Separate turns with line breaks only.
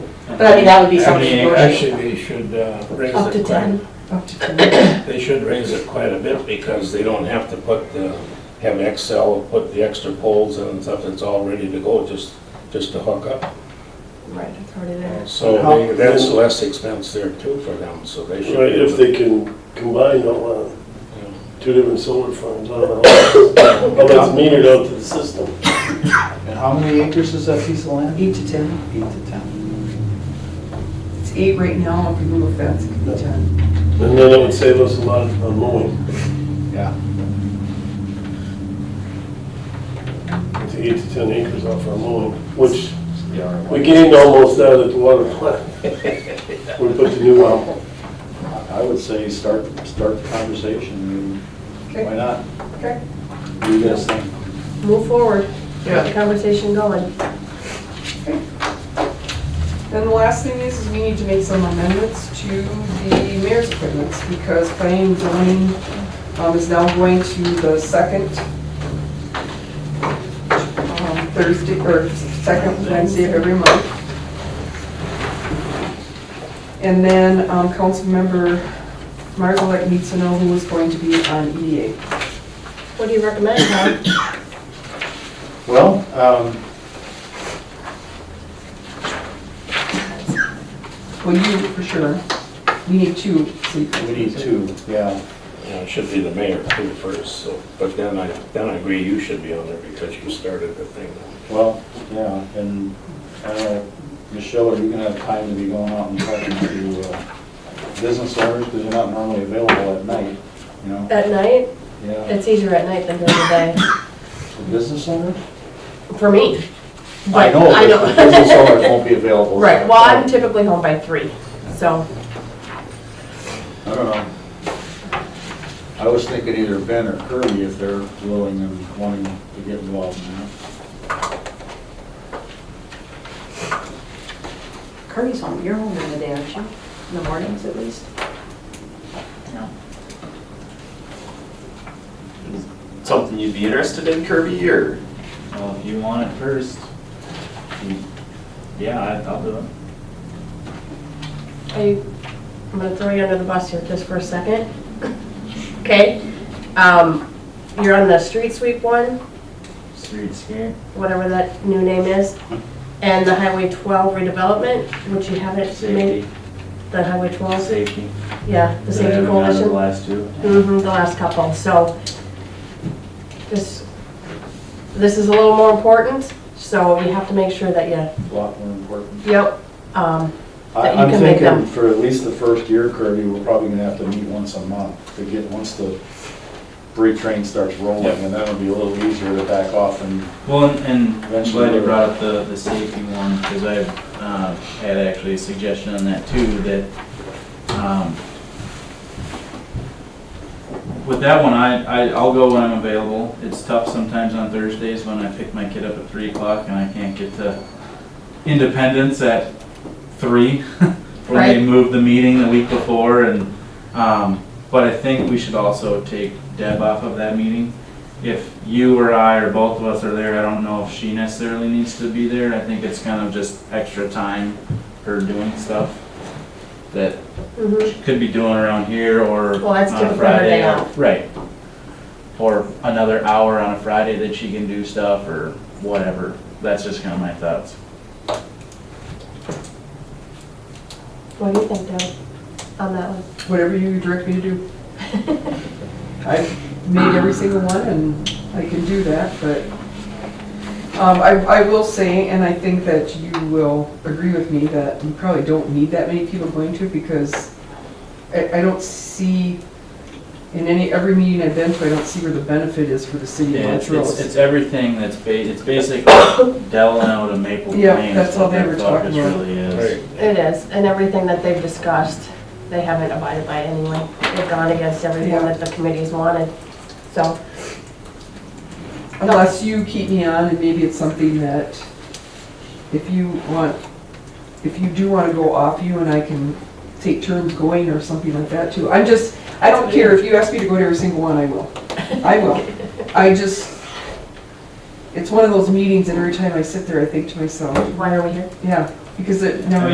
But I mean, that would be something
Actually, actually,
negotiable.
they should uh, raise
Up to
it quite,
10, up to 10.
they should raise it quite a bit because they don't have to put, the- have Excel, put the extra poles in and stuff, it's all ready to go, just, just to hook up.
Right, it's already there.
So they- that's less expense there too for them, so they should.
Right,
be
if
able
they can combine all, uh,
to, you know.
two different solar farms on the house. Well, that's metered out to the system.
And how many acres is that piece of land?
Eight to 10.
Eight to 10.
It's eight right now, if we move a fence, it could be 10.
And then it would save us a lot of mowing,
Yeah.
to eight to 10 acres off our mowing, which we gained almost that at the water plant. We put the new one.
I would say start, start the conversation. I mean, Why
Okay,
not?
okay,
Do you guys think?
move forward, get the conversation going. Okay. Then the last thing is, is we need to make some amendments to the mayor's appointments, because planning zoning um, is now going to the second um, Thursday, or second Wednesday of every month. And then um, council member Margolick needs to know who is going to be on E EDA.
What do you recommend, Tom?
Well, um,
Well, you, for sure. We need two. so you-
we need two, yeah.
Yeah, it should be the mayor too first, so, but then I, then I agree you should be on there because you started the thing.
Well, yeah, and, uh, Michelle, are you gonna have time to be going out and talking to, uh, business owners? Because you're not normally available at night, you know?
At night?
Yeah,
It's easier at night than during the day,
for business owners?
for me.
I
But
know,
I
but business
know.
owners won't be available.
Right, well, I'm typically home by three, so.
I don't know. I was thinking either Ben or Kirby if they're willing and wanting to get involved in that.
Kirby's home, you're home in the day, aren't you? In the mornings at least?
Something you'd be interested in, Kirby, or?
Well, if you want it first, you- yeah, I- I'll do it.
I, I'm gonna throw you under the bus here just for a second. Okay, um, you're on the street sweep one,
Street scared.
whatever that new name is, and the Highway 12 redevelopment, which you haven't made,
Safety,
the Highway 12,
safety.
yeah, the
They
safety
haven't done The
coalition.
last two.
hmm the last couple, so this, this is a little more important, so you have to make sure that you,
A lot more important.
yep, um,
I-
That you
I'm
can make
thinking
them.
for at least the first year, Kirby, we're probably gonna have to meet once a month to get, once the freight train starts rolling, and that'll be a little easier to back off and
Well, and- and I'm
Eventually.
glad you brought up the, the safety one, because I've, uh, had actually a suggestion on that too, that, um, with that one, I, I, I'll go when I'm available. It's tough sometimes on Thursdays when I pick my kid up at three o'clock and I can't get to Independence at three. When they
Right.
moved the meeting the week before and, um, but I think we should also take Deb off of that meeting. If you or I or both of us are there, I don't know if she necessarily needs to be there. I think it's kind of just extra time her doing stuff that
mhm.
she could be doing around here or
Well, that's
on a
different from her
Friday.
day
or-
off.
Right. Or another hour on a Friday that she can do stuff or whatever. That's just kind of my thoughts.
what do you think, Deb, on that one?
Whatever you direct me to do. I've made every single one and I can do that, but, um, I, I will say, and I think that you will agree with me, that you probably don't need that many people going to because I, I don't see, in any, every meeting I've been to, I don't see where the benefit is for the city of
Yeah, it's, it's,
Montrose.
it's everything that's ba, it's basically Delano to Maple Plain.
Yeah, that's
is
all
what
they
their
were talking
focus
about.
Really is.
Right.
It is, and everything that they've discussed, they haven't abided by anyway. They've gone against everything
Yeah.
that the committee's wanted, so.
Unless you keep me on and maybe it's something that if you want, if you do want to go off you and I can take turns going or something like that too. I'm just, I don't care if you ask me to go to every single one, I will. I will. I just, it's one of those meetings and every time I sit there, I think to myself,
Why are we here?
yeah, because it never